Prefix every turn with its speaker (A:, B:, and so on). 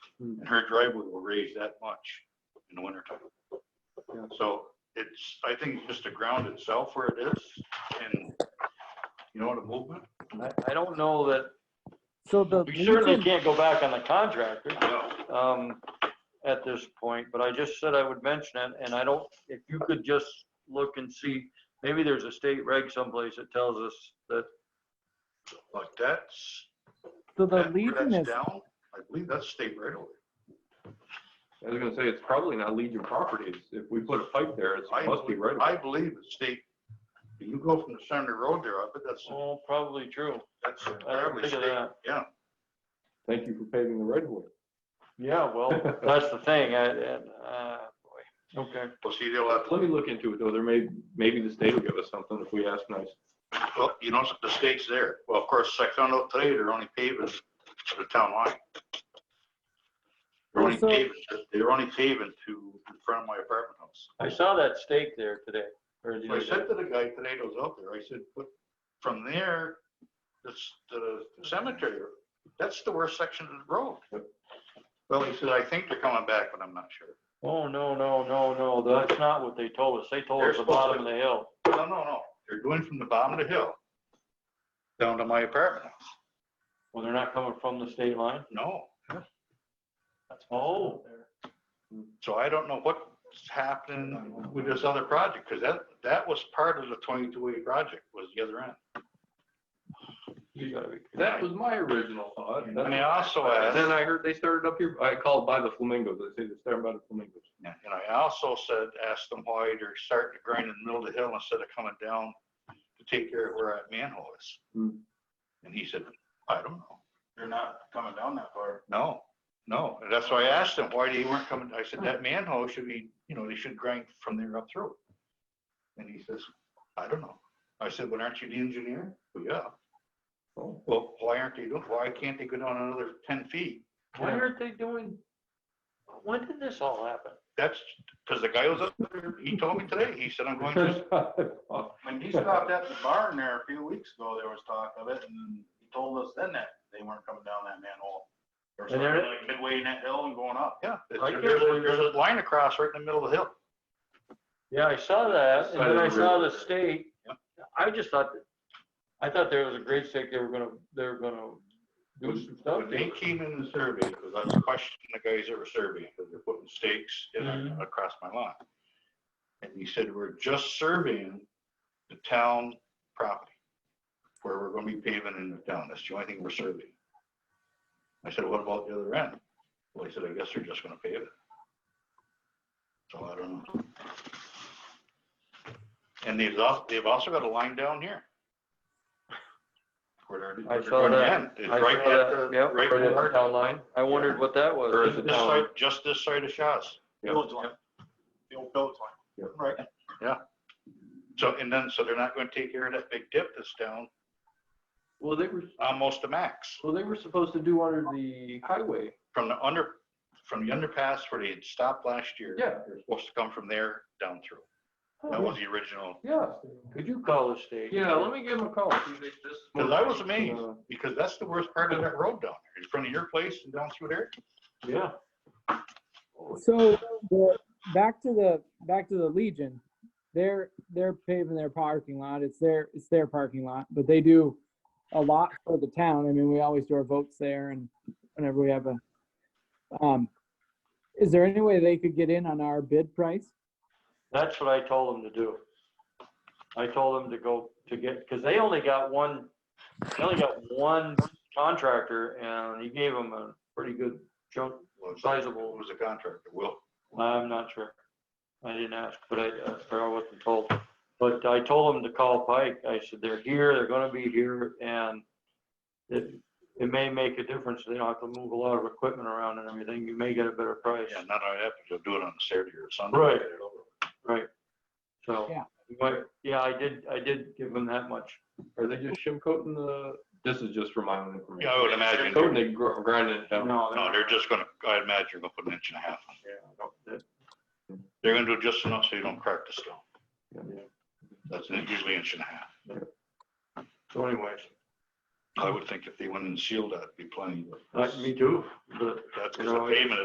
A: Hmm.
B: and her driveway will raise that much in the wintertime.
A: Yeah.
B: So it's, I think it's just the ground itself where it is and, you know, the movement.
C: I, I don't know that,
D: So the
C: we certainly
D: reason,
C: can't go back on the contractor,
B: Yeah,
C: um, at this point, but I just said I would mention it, and I don't, if you could just look and see, maybe there's a state reg someplace that tells us that,
B: But that's,
D: so the
B: that- where
D: Legion
B: that's
D: is,
B: down, I believe that's state right away.
A: I was gonna say, it's probably not Legion Properties. If we put a pipe there, it's-
B: I
A: it must be
B: believe,
A: right.
B: I believe it's state, When you go from the center road there, I bet that's,
C: oh, probably true.
B: that's
C: I didn't
B: probably
C: think of
B: state.
C: that.
B: Yeah,
A: Thank you for paving the right of way.
C: Yeah, well, that's the thing, I, and, uh, boy, okay.
B: well, see, they'll have, to-
A: Let me look into it though. There may, maybe the state will give us something if we ask nice.
B: well, you know, the state's there. Well, of course, I found out today, they're only paving to the town line. They're only
D: Also-
B: paving, they're only paving to, in front of my apartment house.
C: I saw that stake there today, or the
B: So I
C: other day.
B: said to the guy today that was out there, I said, but from there, this, the cemetery, that's the worst section of the road. Well, he said, I think they're coming back, but I'm not sure.
C: Oh, no, no, no, no, that's not what they told us, they told
B: They're
C: us the
B: supposed
C: bottom
B: to-
C: of the hill.
B: No, no, no, they're going from the bottom of the hill down to my apartment house.
C: Well, they're not coming from the state line?
B: No,
C: Oh.
B: so I don't know what's happening with this other project, because that, that was part of the twenty-two A project was the other end.
C: You gotta be.
A: That was my original thought.
B: And I also asked.
A: Then I heard they started up here, I called by the flamingos. They say they're starting by the flamingos.
B: Yeah, And I also said, asked them why they're starting to grind in the middle of the hill instead of coming down to take care of where that manhole is.
A: Hmm.
B: And he said, I don't know.
E: They're not coming down that far.
B: No, no. And that's why I asked him why they weren't coming. I said, that manhole should be, you know, they should grind from there up through. And he says, I don't know. I said, well, aren't you the engineer? Well, yeah.
A: Oh.
B: Well, why aren't they doing, why can't they go down another ten feet?
C: Why aren't they doing, when did this all happen?
B: That's, because the guy was up there, he told me today, he said, I'm going to,
E: When he stopped at the barn there a few weeks ago, there was talk of it and he told us then that they weren't coming down that manhole. Or
C: And they're-
E: something like midway in that hill and going up.
B: yeah.
C: I
B: There's
C: can't
B: a-
C: believe
B: there's a line across right in the middle of the hill.
C: Yeah, I saw that, and
A: Side of
C: then I
A: the
C: saw the
A: river.
C: state,
B: Yep.
C: I just thought, that- I thought there was a great stake, they were gonna, they were gonna do some stuff.
B: When they came in and surveyed, because I was questioning the guys that were surveying, because they're putting stakes in
C: Mhm.
B: across my lot. And he said, we're just surveying the town property, where we're gonna be paving in the town, that's the only thing we're surveying. I said, what about the other end? Well, he said, I guess they're just gonna pave it. So I don't know. And they've also, they've also got a line down here. Where they're-
C: I
B: where they're
C: saw
B: going to
C: that.
B: end. It's
C: I
B: right
C: saw
B: at the-
C: that, yep,
B: right
C: right at
B: at
C: the
B: our-
C: town line, I wondered what that was.
A: Or is
B: Just
A: it
B: this
A: down?
B: side, just this side of Shaw's.
A: Yeah.
E: Village line. The old village
A: Yeah.
E: line. Right.
B: So, and then, so they're not gonna take care of that big dip that's down
A: Well, they were,
B: almost to max
A: well, they were supposed to do under the highway.
B: from the under, from the underpass where they had stopped last year.
A: Yeah.
B: They're supposed to come from there down through. That was the original,
A: Yeah,
C: Could you call the state?
A: yeah, let me give them a call.
B: cause I was amazed, because that's the worst part of that road down there, in front of your place and down through there.
A: Yeah.
D: so the- back to the, back to the Legion. They're, they're paving their parking lot. It's their, it's their parking lot, but they do a lot for the town. I mean, we always do our votes there and whenever we have a, um, is there any way they could get in on our bid price?
C: That's what I told them to do. I told them to go to get, because they only got one, they only got one contractor and he gave them a pretty good chunk.
B: Well, it's-
C: Sizable.
B: It was a contractor, Will.
C: I'm not sure. I didn't ask, but I, uh, I wasn't told. But I told them to call Pike. I said, they're here, they're gonna be here and it, it may make a difference. They don't have to move a lot of equipment around and everything. You may get a better price.
B: Yeah, not only that, but you'll do it on a Saturday or Sunday.
C: Right. Right. So.
D: Yeah.
C: you might- Yeah, I did, I did give them that much.
A: Are they just shim coating the, this is just for my own information.
B: Yeah, I would imagine.
A: Shim coating, they gr- grinding it down.
C: No,
B: No, they're just gonna, I imagine they're gonna put an inch and a half. on it.
C: they're-
B: They're gonna do just enough so you don't crack the stone.
A: Yeah.
B: That's usually inch and a half.
C: So anyways,
B: I would think if they went and sealed that, it'd be plenty.
C: uh, me too. but
B: That's because
C: You
B: the
C: know, it-
B: pavement